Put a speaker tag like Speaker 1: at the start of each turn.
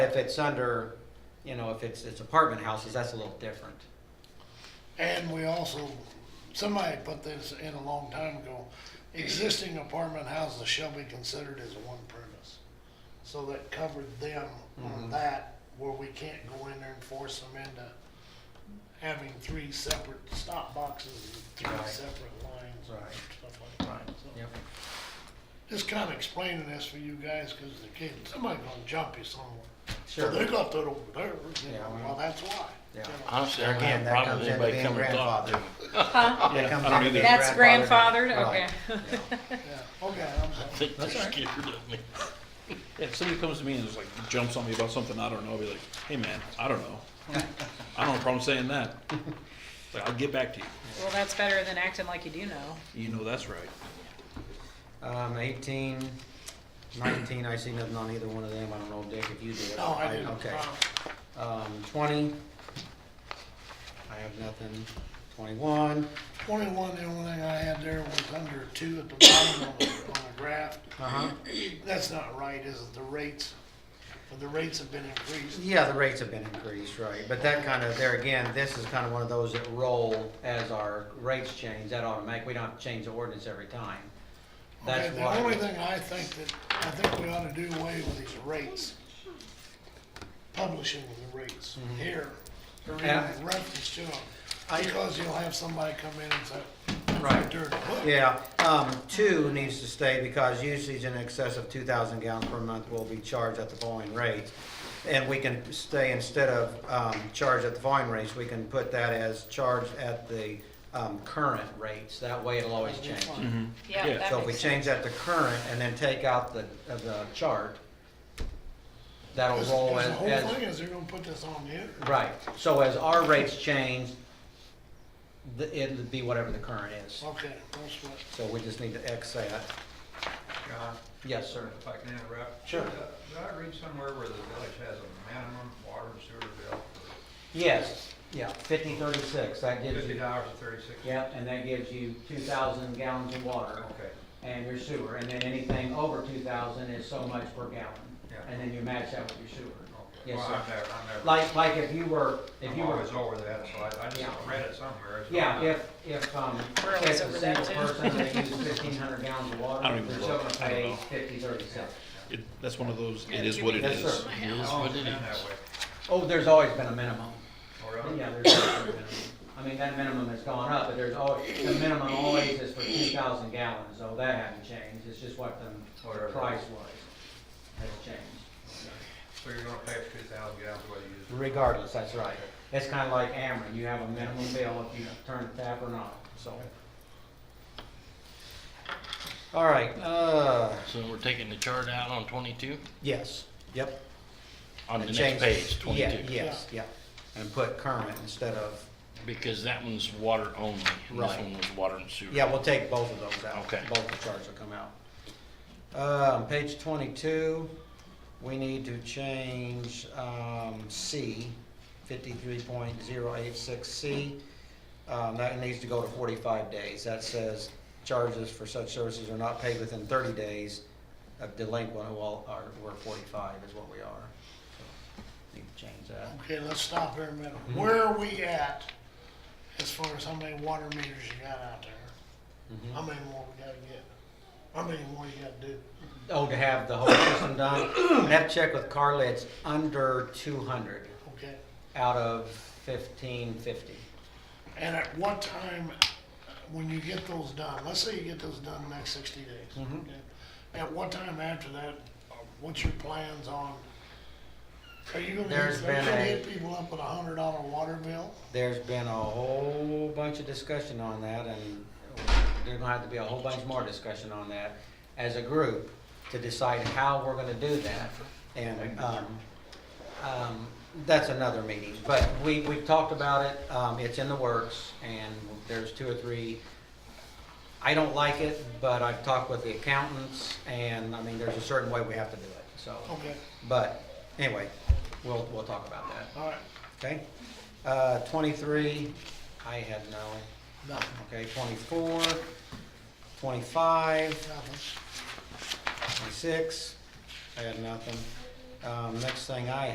Speaker 1: If it's under, you know, if it's, it's apartment houses, that's a little different.
Speaker 2: And we also, somebody put this in a long time ago, existing apartment houses shall be considered as one premise. So that covered them on
Speaker 1: Mhm.
Speaker 2: that, where we can't go in there and force them into having three separate stop boxes and
Speaker 1: Right.
Speaker 2: three separate lines and
Speaker 1: Right.
Speaker 2: stuff like that, so.
Speaker 1: Yep.
Speaker 2: Just kinda explaining this for you guys, cause the kid, somebody gonna jump you somewhere. So
Speaker 1: Sure.
Speaker 2: they got that over there, you
Speaker 1: Yeah,
Speaker 2: know,
Speaker 1: well.
Speaker 2: well, that's why.
Speaker 1: Yeah.
Speaker 2: you know.
Speaker 3: Honestly, I
Speaker 1: Again,
Speaker 3: can't
Speaker 1: that
Speaker 3: problem
Speaker 1: comes
Speaker 3: with
Speaker 1: into
Speaker 3: anybody
Speaker 1: being
Speaker 3: coming and talking to me.
Speaker 4: Huh?
Speaker 1: That comes
Speaker 3: I don't
Speaker 1: into
Speaker 3: either.
Speaker 1: being
Speaker 4: That's grandfathered,
Speaker 1: Right.
Speaker 4: okay.
Speaker 2: Yeah, okay, I'm
Speaker 3: I
Speaker 2: sorry.
Speaker 3: think they're
Speaker 1: That's all right.
Speaker 3: scared of me.
Speaker 5: Yeah, If somebody comes to me and just like jumps on me about something I don't know, I'll be like, hey man, I don't know. I don't have a problem saying that. Like, I'll get back to you.
Speaker 4: Well, that's better than acting like you do know.
Speaker 5: You know that's right.
Speaker 1: Um, eighteen, nineteen, I see nothing on either one of them. I don't know, Dick, if you did.
Speaker 2: No, I didn't.
Speaker 1: Okay.
Speaker 2: Uh,
Speaker 1: Um, twenty. I have nothing. Twenty-one.
Speaker 2: Twenty-one, the only thing I had there was under two at the bottom on the, on the graph.
Speaker 1: Uh-huh.
Speaker 2: That's not right, is it? The rates, the rates have been increased.
Speaker 1: Yeah, the rates have been increased, right, but that kind of, there again, this is kind of one of those that roll as our rates change, that automatic, we don't have to change the ordinance every time.
Speaker 2: Okay,
Speaker 1: That's
Speaker 2: the only
Speaker 1: why,
Speaker 2: thing I think that, I think we ought to do away with these rates. Publishing the rates
Speaker 1: Mm-hmm.
Speaker 2: here, or even
Speaker 1: Yeah.
Speaker 2: reference to them. Because you'll have somebody come in and say, that's
Speaker 1: Right.
Speaker 2: right during the book.
Speaker 1: yeah, um, two needs to stay because usage in excess of two thousand gallons per month will be charged at the following rates. And we can stay, instead of, um, charged at the following rates, we can put that as charged at the, um, current rates, that way it'll always change.
Speaker 4: Yeah,
Speaker 5: Yeah.
Speaker 4: that
Speaker 1: So if we
Speaker 4: makes
Speaker 1: change that to current and then take out the, uh, the chart, that'll
Speaker 2: Because-
Speaker 1: roll
Speaker 2: because
Speaker 1: as,
Speaker 2: The whole thing
Speaker 1: as,
Speaker 2: is they're gonna put this on the internet.
Speaker 1: right. So as our rates change, the, it'll be whatever the current is.
Speaker 2: Okay, that's what.
Speaker 1: So we just need to X that.
Speaker 6: John,
Speaker 1: Yes, sir.
Speaker 6: if I can interrupt.
Speaker 1: Sure.
Speaker 6: Did I did I read somewhere where the village has a minimum water and sewer bill for
Speaker 1: Yes, yeah, fifty thirty-six, that gives
Speaker 6: fifty
Speaker 1: you,
Speaker 6: dollars and thirty-six?
Speaker 1: yep, and that gives you two thousand gallons of water
Speaker 6: Okay,
Speaker 1: and your sewer. And then anything over two thousand is so much per gallon.
Speaker 6: Yeah.
Speaker 1: And then you match that with your sewer.
Speaker 6: okay.
Speaker 1: Yes,
Speaker 6: Well,
Speaker 1: sir.
Speaker 6: I'm never, I'm never,
Speaker 1: Like, like if you were, if
Speaker 6: I'm
Speaker 1: you were
Speaker 6: always over that, so I, I just
Speaker 1: Yeah.
Speaker 6: read it somewhere. so-
Speaker 1: Yeah, if, if, um,
Speaker 4: We're
Speaker 1: if a
Speaker 4: always over that,
Speaker 1: single
Speaker 4: too.
Speaker 1: person, they use fifteen hundred gallons of water,
Speaker 5: I don't even
Speaker 1: they're still
Speaker 5: look.
Speaker 1: gonna
Speaker 5: I don't
Speaker 1: pay
Speaker 5: know.
Speaker 1: fifty, thirty-seven.
Speaker 5: It, that's one of those, it is what it
Speaker 1: Yes,
Speaker 5: is.
Speaker 1: sir.
Speaker 6: I've always been that way.
Speaker 1: Oh, there's always been a minimum.
Speaker 6: Oh, really?
Speaker 1: Yeah, there's always been a minimum. I mean, that minimum has gone up, but there's always, the minimum always is for two thousand gallons, so that hasn't changed, it's just what the
Speaker 6: Whatever.
Speaker 1: price was, has changed.
Speaker 6: So you're gonna pay two thousand gallons whether you use it.
Speaker 1: Regardless, that's right. It's kinda like Ameren, you have a minimum bill if you turn the tap or not, so. All right, uh,
Speaker 3: So we're taking the chart out on twenty-two,
Speaker 1: yes, yep.
Speaker 3: on the
Speaker 1: And change-
Speaker 3: next page,
Speaker 1: yeah,
Speaker 3: twenty-two.
Speaker 1: Yes, yeah, and put current instead of,
Speaker 3: Because that one's water only, and this
Speaker 1: Right.
Speaker 3: one was water and sewer.
Speaker 1: yeah, we'll take both of those out.
Speaker 3: Okay.
Speaker 1: Both the charts will come out. Um, page twenty-two, we need to change, um, C, fifty-three point zero eight six C. Um, that needs to go to forty-five days. That says charges for such services are not paid within thirty days of delinquent, well, are, we're forty-five is what we are. So, Need to change that.
Speaker 2: Okay, let's stop here a minute. Where are we at as far as how many water meters you got out there?
Speaker 1: Mhm.
Speaker 2: How many more we gotta get? How many more you gotta do?
Speaker 1: Oh, to have the whole system done? I'd have to check with Carla, it's under two hundred
Speaker 2: Okay.
Speaker 1: out of fifteen fifty.
Speaker 2: And at what time, uh, when you get those done, let's say you get those done in the next sixty days.
Speaker 1: Mhm.
Speaker 2: okay? At what time after that, uh, what's your plans on? Are you gonna,
Speaker 1: There's
Speaker 2: hit- are
Speaker 1: been
Speaker 2: you gonna
Speaker 1: a-
Speaker 2: hit people up with a hundred dollar water bill?
Speaker 1: There's been a whole bunch of discussion on that, and there's gonna have to be a whole bunch more discussion on that as a group to decide how we're gonna do that. And, um, um, that's another meeting, but we, we've talked about it, um, it's in the works, and there's two or three. I don't like it, but I've talked with the accountants, and, I mean, there's a certain way we have to do it, so.
Speaker 2: Okay,
Speaker 1: But, anyway, we'll, we'll talk about that.
Speaker 2: all right,
Speaker 1: Okay, uh, twenty-three, I had no,
Speaker 2: nothing,
Speaker 1: okay, twenty-four, twenty-five,
Speaker 2: nothing.
Speaker 1: twenty-six, I had nothing. Um, next thing I